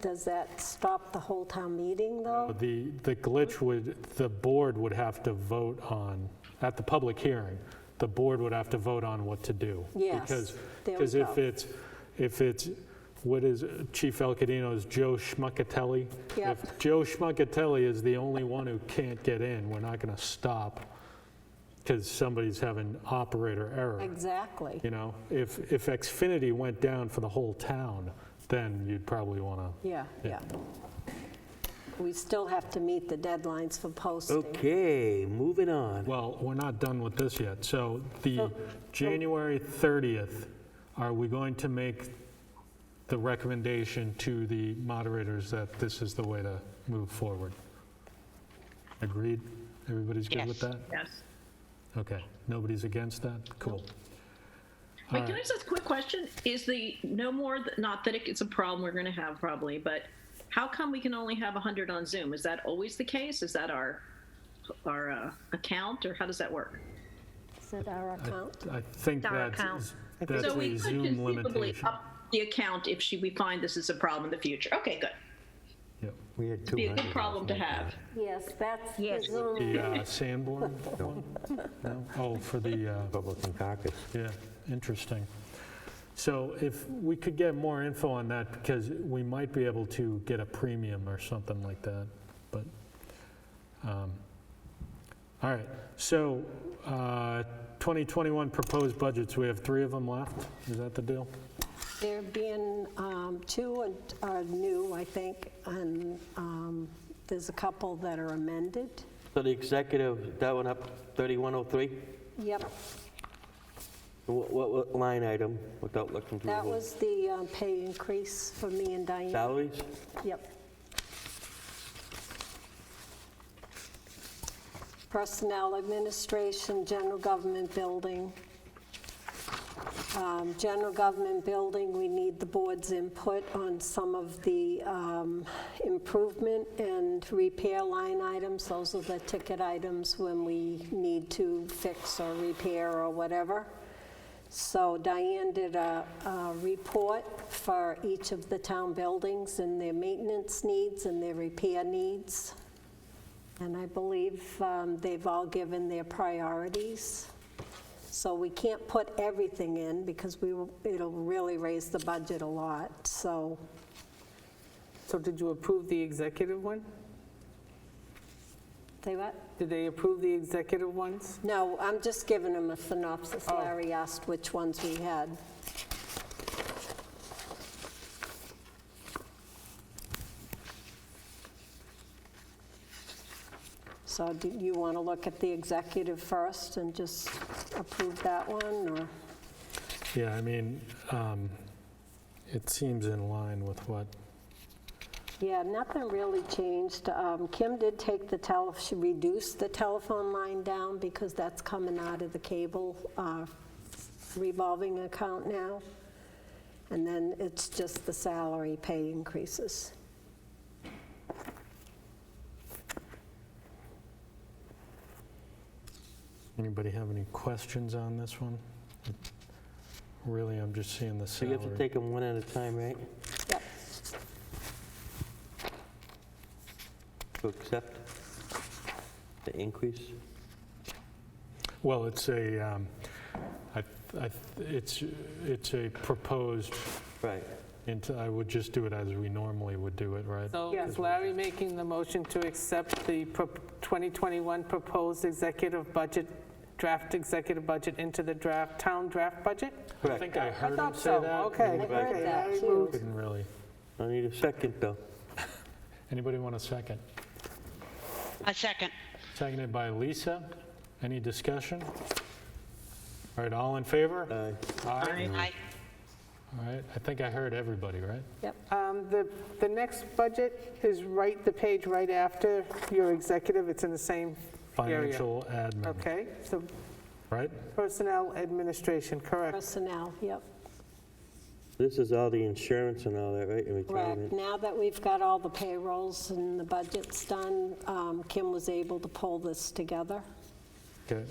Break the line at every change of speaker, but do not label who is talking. Does that stop the whole town meeting, though?
The, the glitch would, the board would have to vote on, at the public hearing, the board would have to vote on what to do.
Yes,
Because,
there we
because if
go.
it's, if it's, what is Chief Elcadino's Joe Schmuckatelli?
Yep.
If Joe Schmuckatelli is the only one who can't get in, we're not going to stop because somebody's having operator error.
Exactly.
You know, if, if Xfinity went down for the whole town, then you'd probably want to
Yeah, yeah.
Yeah.
We still have to meet the deadlines for posting.
Okay, moving on.
Well, we're not done with this yet. So the January 30th, are we going to make the recommendation to the moderators that this is the way to move forward? Agreed? Everybody's good with that?
Yes.
Okay. Nobody's against that? Cool.
Wait, can I just ask a quick question? Is the no more, th- not that it's a problem we're going to have probably, but how come we can only have 100 on Zoom? Is that always the case? Is that our our uh, account or how does that work?
Is it our account?
I think
Our
that's,
account.
that's
so we
a
could
Zoom
conceivably
limitation.
up the account if she, we find this is a problem in the future. Okay, good.
Yep.
We had
Be a
200.
good problem to have.
Yes, that's the
Yes.
Zoom.
The uh, Sanborn one? No? Oh, for the, uh,
Republican caucus.
Yeah, interesting. So if we could get more info on that, because we might be able to get a premium or something like that, but, um, all right. So uh, 2021 proposed budgets, we have three of them left? Is that the deal?
There being um, two and- are new, I think, and um, there's a couple that are amended.
So the executive, that went up 3103?
Yep,
What, what- what line item, without looking through the
that
whole?
was the um, pay increase for me and Diane.
Salaries?
Yep. Personnel administration, general government building. Um, General government building, we need the board's input on some of the um, improvement and repair line items. Those are the ticket items when we need to fix or repair or whatever. So Diane did a, a report for each of the town buildings and their maintenance needs and their repair needs. And I believe um, they've all given their priorities. So we can't put everything in because we, will- it'll really raise the budget a lot. So
So did you approve the executive one?
they what?
Did they approve the executive ones?
No, I'm just giving them a synopsis.
Oh.
Larry asked which ones we had. So do you want to look at the executive first and just approve that one, or?
Yeah, I mean, um, it seems in line with what,
Yeah, nothing really changed. Um, Kim did take the tele, she reduced the telephone line down because that's coming out of the cable uh, revolving account now. And then it's just the salary pay increases.
anybody have any questions on this one? Really, I'm just seeing the
So you
salary.
have to take them one at a time, right?
Yep.
To accept the increase?
Well, it's a, um, I- I- it's, it's a proposed,
Right.
and I would just do it as we normally would do it, right?
So
Yeah.
is Larry making the motion to accept the prop- 2021 proposed executive budget, draft executive budget into the draft, town draft budget?
I
Correct.
think I heard him
thought
say
so.
that.
Okay.
I
Right.
heard
Okay,
that
Larry
too.
Couldn't really.
I need a second, though.
Anybody want a second?
A second.
Seconded by Lisa. Any discussion? All right, all in favor?
Uh,
Uh,
Aye.
Aye.
All right, I think I heard everybody, right?
Yep.
Um, The, the next budget is right, the page right after your executive, it's in the same area.
Financial admin,
Okay, so
right?
personnel administration, correct.
Personnel, yep.
This is all the insurance and all that, right? And
Correct.
retirement.
Now that we've got all the payrolls and the budgets done, um, Kim was able to pull this together.
Okay.